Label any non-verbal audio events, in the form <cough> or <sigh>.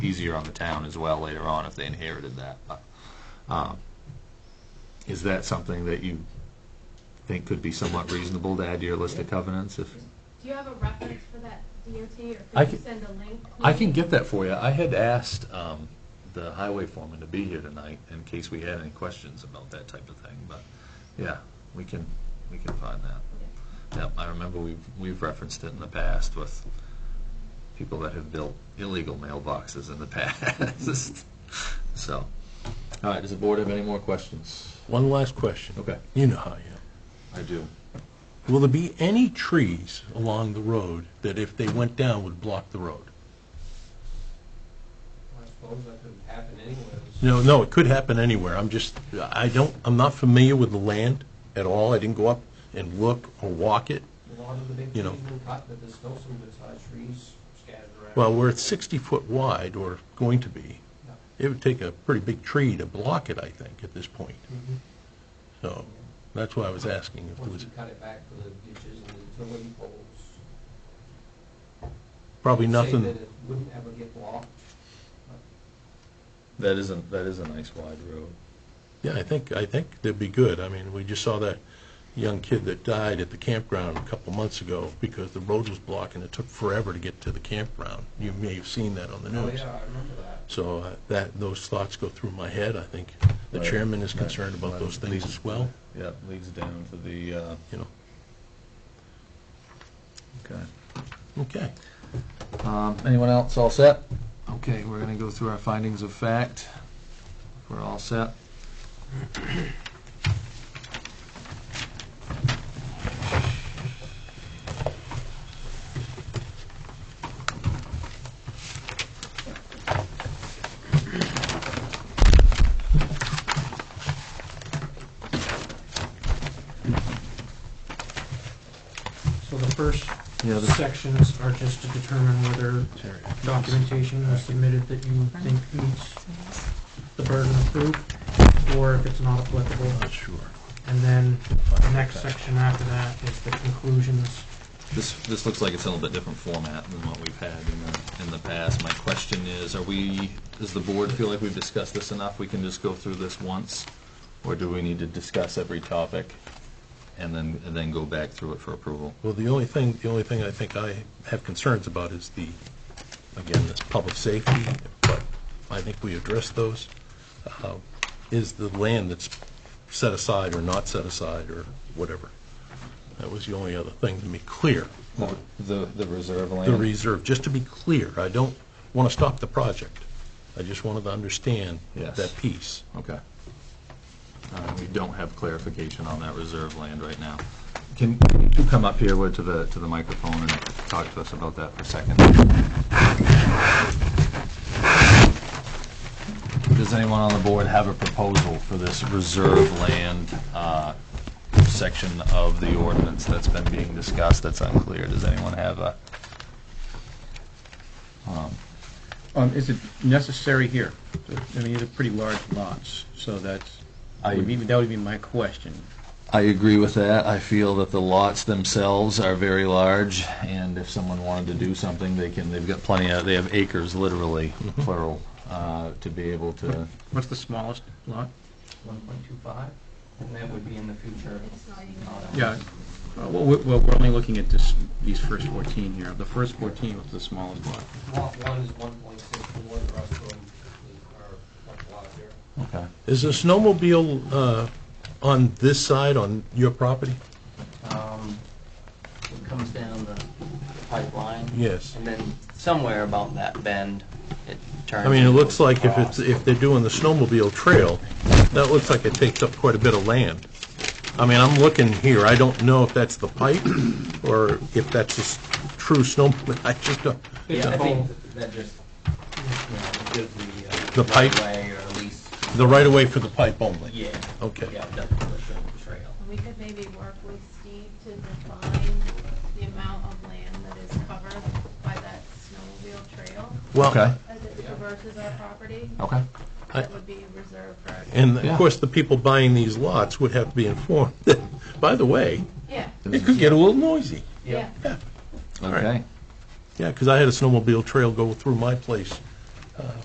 easier on the town as well later on if they inherited that. But, um, Is that something that you think could be somewhat reasonable to add to your list of covenants if? Do you have a reference for that DOT, I or could you can- send a link? I can maybe? get that for you. I had asked um, the highway foreman to be here tonight in case we had any questions about that type of thing, but, yeah, we can, we can find that. Yeah. Yep, I remember we've, we've referenced it in the past with people that have built illegal mailboxes in the <laughs> past. So, all right, does the board have any more questions? One last question. Okay. You know how you I do. know. Will there be any trees along the road that if they went down would block the road? I suppose that could happen anyways. No, no, it could happen anywhere. I'm just, I don't, I'm not familiar with the land at all. I didn't go up and look or walk it. A lot of the big trees You know. have been cut, but there's still some good-sized trees scattered around. Well, where it's 60 foot wide or going to be, Yeah. it would take a pretty big tree to block it, I think, at this point. So that's why I was asking if there Once was, you cut it back for the ditches and the utility poles. probably Say that nothing, it wouldn't ever get blocked. That is a, that is a nice wide road. yeah, I think, I think they'd be good. I mean, we just saw that young kid that died at the campground a couple months ago because the road was blocked and it took forever to get to the campground. You may have seen that on the Oh, news. yeah, I remember that. So uh, that, those thoughts go through my head, I think. The Right. chairman is Right. concerned about Right. those things Please. as well, Yeah, leads down to the, uh, you know. okay. Okay. Um, Anyone else all set? Okay, we're gonna go through our findings of fact. We're all set. So the first Yeah, the- sections are just to determine whether documentation was submitted that you think meets the burden of proof, or if it's not applicable. Not sure. And then the next section after that is the conclusions. This, this looks like it's in a little bit different format than what we've had in the, in the past. My question is, are we, does the board feel like we've discussed this enough? We can just go through this once? Or do we need to discuss every topic and then, and then go back through it for approval? Well, the only thing, the only thing I think I have concerns about is the, again, this public safety, but I think we addressed those. Uh, Is the land that's set aside or not set aside or whatever? That was the only other thing to make clear. The, the- the reserve land? the reserve, just to be clear, I don't want to stop the project. I just wanted to understand Yes. that piece. Okay. Uh, We don't have clarification on that reserve land right now. Can can you two come up here Wood, to the, to the microphone and talk to us about that for a second? Does anyone on the board have a proposal for this reserve land uh, section of the ordinance that's been being discussed that's unclear? Does anyone have a? Um, Is it necessary here? I mean, these are pretty large lots, so that's, I- would be- that would be my question. I agree with that. I feel that the lots themselves are very large, and if someone wanted to do something, they can, they've got plenty of, they have acres, literally, plural, uh, to be able to, What's the smallest lot? One point two five, and that would be in the future. It's not even- not- Yeah, uh, well, we- well, we're only looking at this, these first 14 here. The first 14 was the smallest lot. Lot one is one point six four, the rest of them are like a lot here. okay. Is the snowmobile uh, on this side, on your property? um, it comes down the pipeline. Yes. And then somewhere about that bend, it turns. I mean, it and looks goes like if it's, across. if they're doing the snowmobile trail, that looks like it takes up quite a bit of land. I mean, I'm looking here, I don't know if that's the pipe or if that's a s- true snow, <laughs> I just don't, It's Yeah, I a think whole, that just, you know, gives the. uh, The pipe? Right-of-way or at least, the right-of-way for the pipe only. yeah. Okay. Yeah, definitely the trail. We could maybe work with Steve to define the amount of land that is covered by that snowmobile trail Well, as it traverses our property. Okay. I- That would be reserved for, and Yeah. of course, the people buying these lots would have to be informed. <laughs> By the way, yeah, it could get a little noisy. yeah. Okay. Yeah, because I had a snowmobile trail go through my place